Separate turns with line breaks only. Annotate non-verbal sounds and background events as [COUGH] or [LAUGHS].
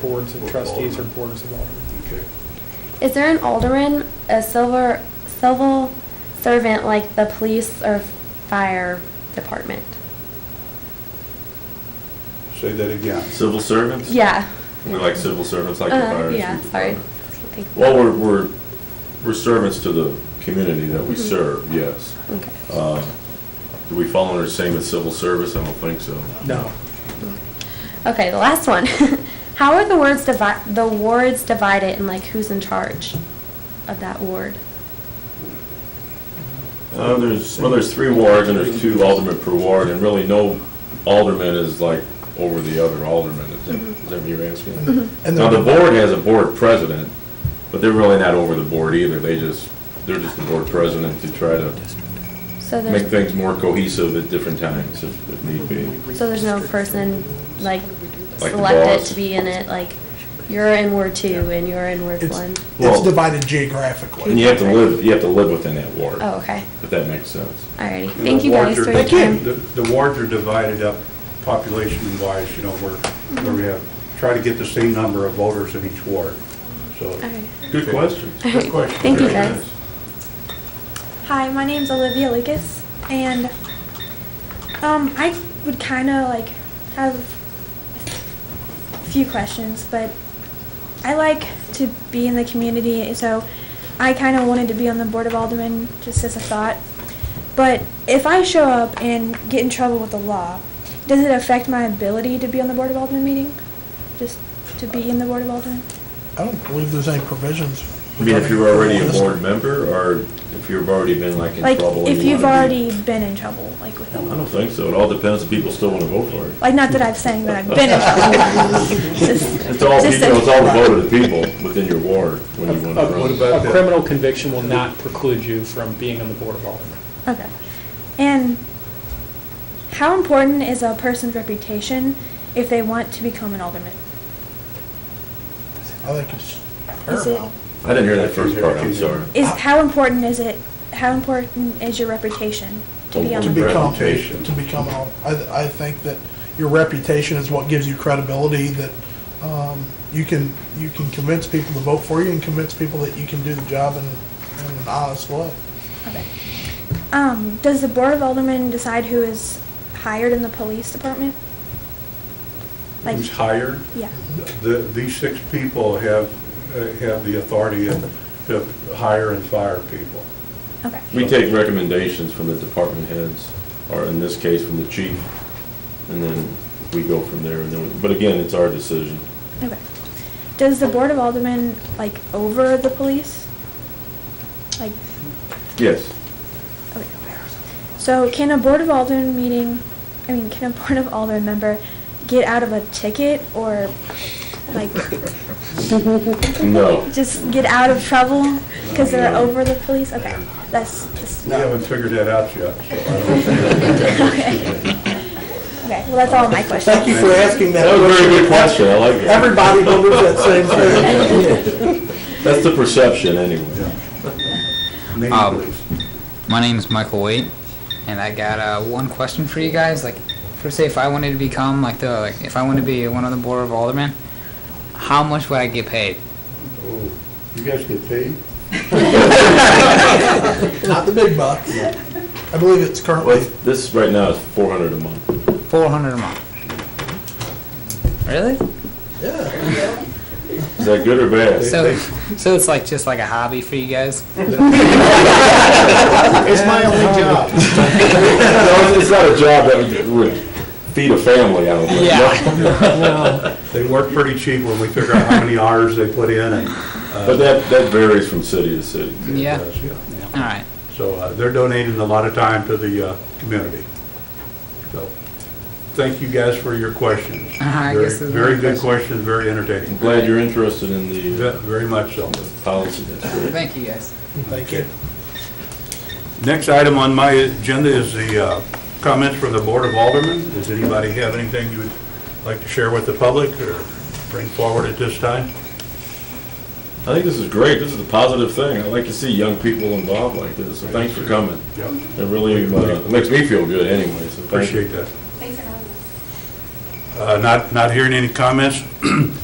boards of
Or
trustees or
aldermen.
boards of aldermen.
Okay.
Is there an alderman, a silver, civil servant like the police or fire department?
Say that again.
Civil servants?
Yeah.
We like civil servants, like the
Uh,
fire.
Yeah,
chief.
sorry. Okay.
Well, we're, we're, we're servants to the community that we
Mhm.
serve, yes.
Okay.
Uh, Do we fall under the same as civil service? I don't think so.
No.
Okay, the last one. [LAUGHS] How are the words divi, the wards divided and like who's in charge of that ward?
Uh, there's, well, there's three wards and there's two aldermen per ward and really no alderman is like over the other alderman. Is
Mm-hmm.
that- is that what you're asking?
And
Now, the
the,
board has a board president, but they're really not over the board either. They just, they're just the board president to try to
So
make
there's,
things more cohesive at different times if if need be.
so there's no person like
Like the
selected
boss.
to be in it, like you're in Ward Two and you're in Ward
it's,
One?
Well-
it's divided geographically.
And you have to live, you have to live within that ward,
Oh, okay.
if that makes sense.
Alrighty.
And
Thank
the
you guys
wards
for
are-
your time.
The the wards are divided up population-wise, you know, where, where we have, try to get the same number of voters in each ward, so.
Alright.
Good
[LAUGHS]
question.
Good question.
Thank you,
Very
guys.
nice.
Hi, my name's Olivia Lucas, and um, I would kind of like have a few questions, but I like to be in the community, so I kind of wanted to be on the board of aldermen just as a thought. But if I show up and get in trouble with the law, does it affect my ability to be on the board of aldermen meeting? Just to be in the board of aldermen?
I don't believe there's any provisions.
I mean, if you're already a board member, or if you've already been like in
Like,
trouble. and
if
you
you've
wanna be-
already been in trouble, like with the
I
law.
don't think so. It all depends if people still want to vote for it.
Like, not that I've saying that I've been in trouble. Just-
It's all,
just
people-
that-
it's all the vote of the people within your ward when you
Uh,
want to
What
run.
about
A
that?
criminal conviction will not preclude you from being on the board of aldermen.
Okay. And how important is a person's reputation if they want to become an alderman?
I think it's
Is it,
paramount.
I didn't hear that first part, I'm sorry.
is, how important is it, how important is your reputation to be on
To
the
be-
board?
become,
Reputation.
to become, a- I, I think that your reputation is what gives you credibility, that, um, you can, you can convince people to vote for you and convince people that you can do the job in, in an honest way.
Okay. Um, does the board of aldermen decide who is hired in the police department? Like,
Who's hired?
yeah,
The, these six people have, uh, have the authority to hire and fire people.
okay.
We take recommendations from the department heads, or in this case, from the chief, and then we go from there. And then, But again, it's our decision.
Okay. Does the Board of Aldermen, like, over the police? Like,
Yes.
okay. So can a Board of Aldermen meeting, I mean, can a [LAUGHS] Board of Aldermen member get out of a ticket or, like,
No.
just get out of trouble because they're over the police? Okay, that's, just
We haven't figured that out yet, so I don't.
okay. Okay, well, that's all my questions.
Thank you for asking that.
That was a very good question, I like it.
Everybody wonders that same thing.
That's the perception, anyway.
uh, Name,
Um,
please.
My name's Michael Waite, and I got uh, one question for you guys. Like, for say, if I wanted to become like the like, if I want to be one of the board of aldermen, how much would I get paid?
Oh, You guys get paid?
[LAUGHS] Not the big bucks. I believe it's
Well,
currently,
this right now is four hundred a month.
Four hundred a month. Really?
yeah.
Is that good or bad?
So, so it's like just like a hobby for you guys.
It's my
[LAUGHS]
only
[LAUGHS]
job.
No, it's- It's not a job that would- would feed a family, I don't think.
Yeah.
They work pretty cheap when we figure out how many hours they put in and.
[LAUGHS]
uh,
But that, that varies from city to city.
it
Yeah.
does, yeah.
All right.
So uh, they're donating a lot of time to the uh, community. So, thank you guys for your questions.
[LAUGHS] I
Very-
guess there's
Very
no
good
question.
questions, very
I'm
entertaining.
glad you're interested in the
Ve- Very much so.
policy. That's great.
Thank you guys.
Thank you.
Next item on my agenda is the uh, comments from the Board of Aldermen. Does anybody have anything you would like to share with the public or bring forward at this time?
I think this is great. This is a positive thing. I like to see young people involved like this, so thanks for coming.
Yeah,
It really uh, makes me feel good anyway, so thank you.
Uh, appreciate that. Thanks for having us. Not, not hearing any comments.